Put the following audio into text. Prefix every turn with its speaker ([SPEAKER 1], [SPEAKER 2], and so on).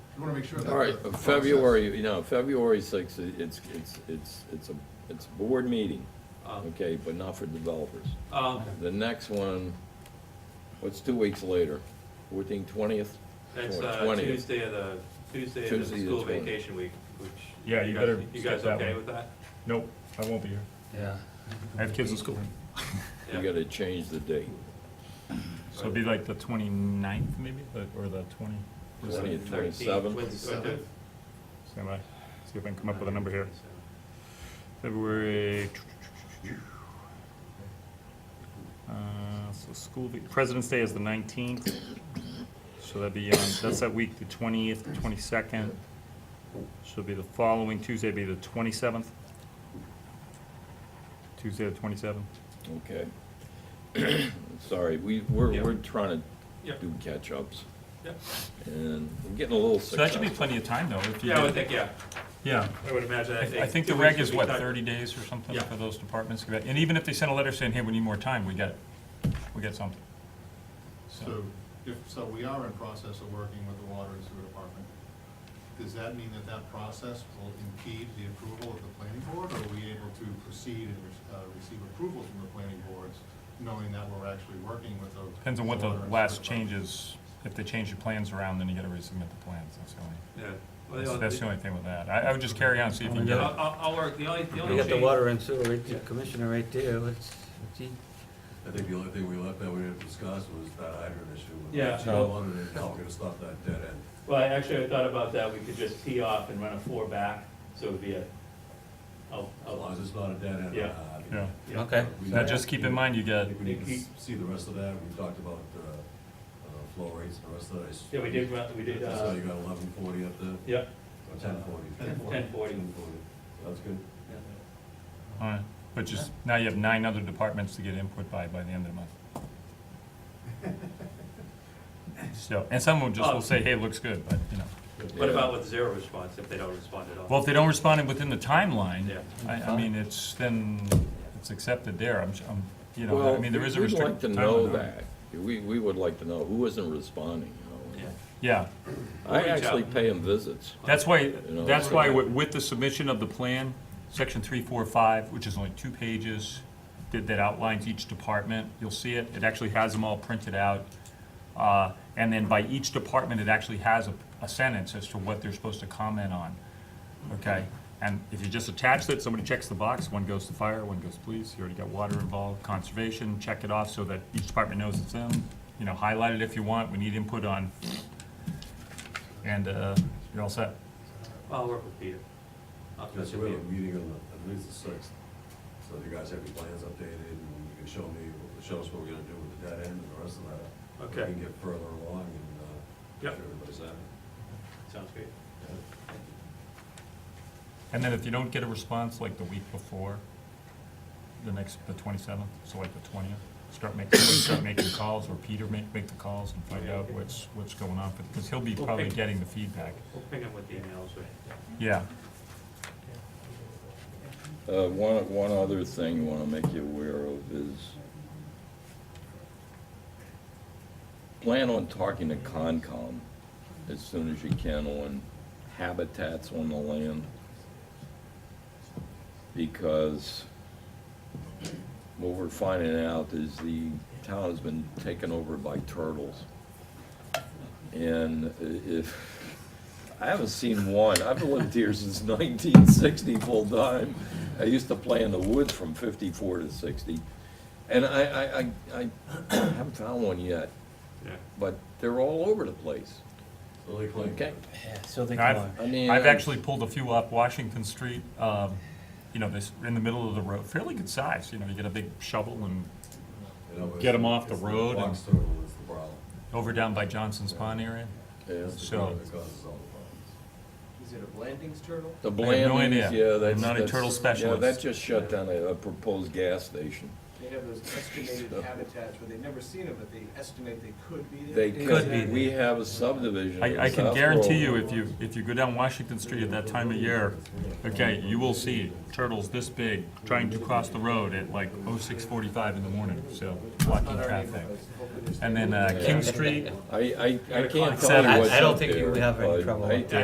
[SPEAKER 1] wanna make sure. that
[SPEAKER 2] All right,
[SPEAKER 1] the
[SPEAKER 2] February, you know, February sixth, it's, it's, it's, it's a, it's a board meeting,
[SPEAKER 3] Um,
[SPEAKER 2] okay, but not for developers.
[SPEAKER 3] um,
[SPEAKER 2] The next one, what's two weeks later, fourteen, twentieth?
[SPEAKER 3] That's uh, Tuesday of the, Tuesday of
[SPEAKER 2] Tuesday
[SPEAKER 3] the
[SPEAKER 2] the
[SPEAKER 3] school
[SPEAKER 2] 20th.
[SPEAKER 3] vacation week, which.
[SPEAKER 4] Yeah, you
[SPEAKER 3] guys-
[SPEAKER 4] better
[SPEAKER 3] You
[SPEAKER 4] skip
[SPEAKER 3] guys
[SPEAKER 4] that
[SPEAKER 3] okay
[SPEAKER 4] one.
[SPEAKER 3] with that?
[SPEAKER 4] Nope, I won't be here.
[SPEAKER 5] Yeah.
[SPEAKER 4] I have kids at school.
[SPEAKER 2] You
[SPEAKER 3] Yeah.
[SPEAKER 2] gotta change the date,
[SPEAKER 4] So it'd be like the 29th maybe, the- or the 20,
[SPEAKER 2] twentieth,
[SPEAKER 3] 13th,
[SPEAKER 2] twenty-seventh.
[SPEAKER 3] Wednesday, Wednesday.
[SPEAKER 4] stand by. See if I can come up with a number here. February. Uh, so school, vac- President's Day is the nineteenth, so that'd be, um, that's that week, the twentieth, twenty-second. So it'd be the following Tuesday, it'd be the twenty-seventh. Tuesday the twenty-seventh.
[SPEAKER 2] okay? Sorry, we, we're,
[SPEAKER 3] Yeah.
[SPEAKER 2] we're trying to
[SPEAKER 3] Yep.
[SPEAKER 2] do catch-ups,
[SPEAKER 3] Yep.
[SPEAKER 2] and we're getting a little
[SPEAKER 4] So that should be
[SPEAKER 2] successful.
[SPEAKER 4] plenty of time though, if you.
[SPEAKER 3] Yeah, I would
[SPEAKER 4] did-
[SPEAKER 3] think, yeah,
[SPEAKER 4] Yeah,
[SPEAKER 3] I would imagine.
[SPEAKER 4] I I think the
[SPEAKER 3] two
[SPEAKER 4] reg
[SPEAKER 3] weeks
[SPEAKER 4] is
[SPEAKER 3] would be
[SPEAKER 4] what,
[SPEAKER 3] tight.
[SPEAKER 4] thirty days or something
[SPEAKER 3] Yeah.
[SPEAKER 4] for those departments, and even if they send a letter saying, hey, we need more time, we get, we get something.
[SPEAKER 1] So, if, so we are in process of working with the water and sewer department. Does that mean that that process will impede the approval of the planning board, or are we able to proceed and, uh, receive approval from the planning boards, knowing that we're actually working with the.
[SPEAKER 4] Depends on what the
[SPEAKER 1] water and sewer
[SPEAKER 4] last
[SPEAKER 1] department?
[SPEAKER 4] change is. If they change the plans around, then you gotta resubmit the plans. That's the only,
[SPEAKER 3] Yeah. Well,
[SPEAKER 4] that's-
[SPEAKER 3] the-
[SPEAKER 4] that's the only thing with that. I, I would just carry on, see if you can
[SPEAKER 3] I'll,
[SPEAKER 4] get it.
[SPEAKER 3] I'll- I'll work, the only, the only
[SPEAKER 5] You got the
[SPEAKER 3] change-
[SPEAKER 5] water and sewer right there, commissioner right there, what's, what's he?
[SPEAKER 6] I think the only thing we left that we didn't discuss was that hydrant issue.
[SPEAKER 3] Yeah.
[SPEAKER 6] How long it, how we're gonna stop that dead end.
[SPEAKER 3] Well, I- actually, I thought about that, we could just tee off and run a four back, so it would be a, oh,
[SPEAKER 6] As long
[SPEAKER 3] oh,
[SPEAKER 6] as it's not a dead end.
[SPEAKER 3] Yeah.
[SPEAKER 6] uh, I mean,
[SPEAKER 4] Yeah.
[SPEAKER 3] yeah.
[SPEAKER 5] Okay,
[SPEAKER 6] we-
[SPEAKER 4] Now, just keep in mind, you
[SPEAKER 6] I
[SPEAKER 4] get,
[SPEAKER 6] think we need to s- see the rest of that. We talked about, uh, uh, flow rates and the rest of that. I s-
[SPEAKER 3] Yeah, we did, run- we did,
[SPEAKER 6] So
[SPEAKER 3] uh,
[SPEAKER 6] you got eleven forty up there,
[SPEAKER 3] yeah,
[SPEAKER 6] or ten forty?
[SPEAKER 3] 1040. 1040.
[SPEAKER 6] That's good.
[SPEAKER 4] all right, but just, now you have nine other departments to get input by, by the end of the month. So, and some will
[SPEAKER 3] Oh.
[SPEAKER 4] just, will say, hey, it looks good, but, you know.
[SPEAKER 3] What
[SPEAKER 2] Yeah.
[SPEAKER 3] about with zero response, if they don't respond at all?
[SPEAKER 4] Well, if they don't respond within the timeline,
[SPEAKER 3] Yeah.
[SPEAKER 4] I, I mean, it's, then, it's accepted there. I'm, I'm, you know,
[SPEAKER 2] Well,
[SPEAKER 4] I mean, there is a
[SPEAKER 2] we'd like
[SPEAKER 4] restricted
[SPEAKER 2] to
[SPEAKER 4] timeline.
[SPEAKER 2] know that, we, we would like to know who isn't responding, you know?
[SPEAKER 3] Yeah.
[SPEAKER 4] Yeah.
[SPEAKER 2] I
[SPEAKER 3] Reach out.
[SPEAKER 2] actually pay them visits.
[SPEAKER 4] That's why,
[SPEAKER 2] know,
[SPEAKER 4] that's
[SPEAKER 2] it's-
[SPEAKER 4] why with with the submission of the plan, section three, four, five, which is only two pages, that, that outlines each department, you'll see it, it actually has them all printed out. Uh, and then by each department, it actually has a, a sentence as to what they're supposed to comment on, okay? And if you just attach it, somebody checks the box, one goes to fire, one goes police, you already got water involved, conservation, check it off so that each department knows it's them. You know, highlight it if you want, we need input on, and, uh, you're all set.
[SPEAKER 3] I'll work with Peter. I'll
[SPEAKER 6] Yeah, so
[SPEAKER 3] check
[SPEAKER 6] we have
[SPEAKER 3] with
[SPEAKER 6] a meeting on the, I believe it's the sixth. So if you guys have your plans updated and you can show me, show us what we're gonna do with the dead end and the rest of that.
[SPEAKER 3] Okay.
[SPEAKER 6] We can get further along and, uh,
[SPEAKER 3] Yep.
[SPEAKER 6] if everybody's happy.
[SPEAKER 3] Peter. Sounds great.
[SPEAKER 4] And then if you don't get a response like the week before, the next, the twenty-seventh, so like the twentieth, start making, start making calls, or Peter make, make the calls and find out what's, what's going on, because he'll be probably
[SPEAKER 3] Okay.
[SPEAKER 4] getting the feedback.
[SPEAKER 3] We'll ping him with the emails, right?
[SPEAKER 4] Yeah,
[SPEAKER 2] Uh, one, one other thing I wanna make you aware of is plan on talking to Concom as soon as you can on habitats on the land. Because what we're finding out is the town has been taken over by turtles. And i- if, I haven't seen one. I've lived here since nineteen sixty full time. I used to play in the woods from fifty-four to sixty. And I, I, I, I haven't found one yet,
[SPEAKER 3] Yeah.
[SPEAKER 2] but they're all over the place,
[SPEAKER 6] Lily Clayton.
[SPEAKER 2] okay?
[SPEAKER 5] yeah, so they
[SPEAKER 4] I've-
[SPEAKER 5] come on.
[SPEAKER 2] I mean.
[SPEAKER 4] I've actually pulled a few off Washington Street, um, you know, this, in the middle of the road, fairly good size, you know, you get a big shovel and
[SPEAKER 6] You know, it's-
[SPEAKER 4] Get 'em off the
[SPEAKER 6] it's
[SPEAKER 4] road and-
[SPEAKER 6] Fox turtle is the problem.
[SPEAKER 4] over down by Johnson's Pond area.
[SPEAKER 2] Yeah.
[SPEAKER 6] It's the
[SPEAKER 4] So-
[SPEAKER 6] problem that causes all
[SPEAKER 7] Is it a Blandings turtle?
[SPEAKER 2] The
[SPEAKER 4] I have no
[SPEAKER 2] Blandings,
[SPEAKER 4] idea.
[SPEAKER 2] yeah,
[SPEAKER 4] I'm
[SPEAKER 2] that's.
[SPEAKER 4] not a
[SPEAKER 2] that's-
[SPEAKER 4] turtle
[SPEAKER 2] Yeah, that
[SPEAKER 4] specialist.
[SPEAKER 2] just shut down a a proposed gas station.
[SPEAKER 1] They have those estimated habitats where they've never seen them, but they estimate they could be there.
[SPEAKER 2] They
[SPEAKER 5] Could be.
[SPEAKER 2] could, we have a subdivision. in
[SPEAKER 4] I, I can
[SPEAKER 2] South
[SPEAKER 4] guarantee you,
[SPEAKER 2] Florida.
[SPEAKER 4] if you, if you go down Washington Street at that time of year, okay, you will see turtles this big trying to cross the road at like oh six forty-five in the morning, so blocking traffic. And then, uh, King Street,
[SPEAKER 2] I, I, I can't
[SPEAKER 5] Except-
[SPEAKER 2] tell you what's
[SPEAKER 5] I- I don't
[SPEAKER 2] up
[SPEAKER 5] think you
[SPEAKER 2] there,
[SPEAKER 5] would have any
[SPEAKER 2] but
[SPEAKER 5] trouble
[SPEAKER 2] I
[SPEAKER 5] with that.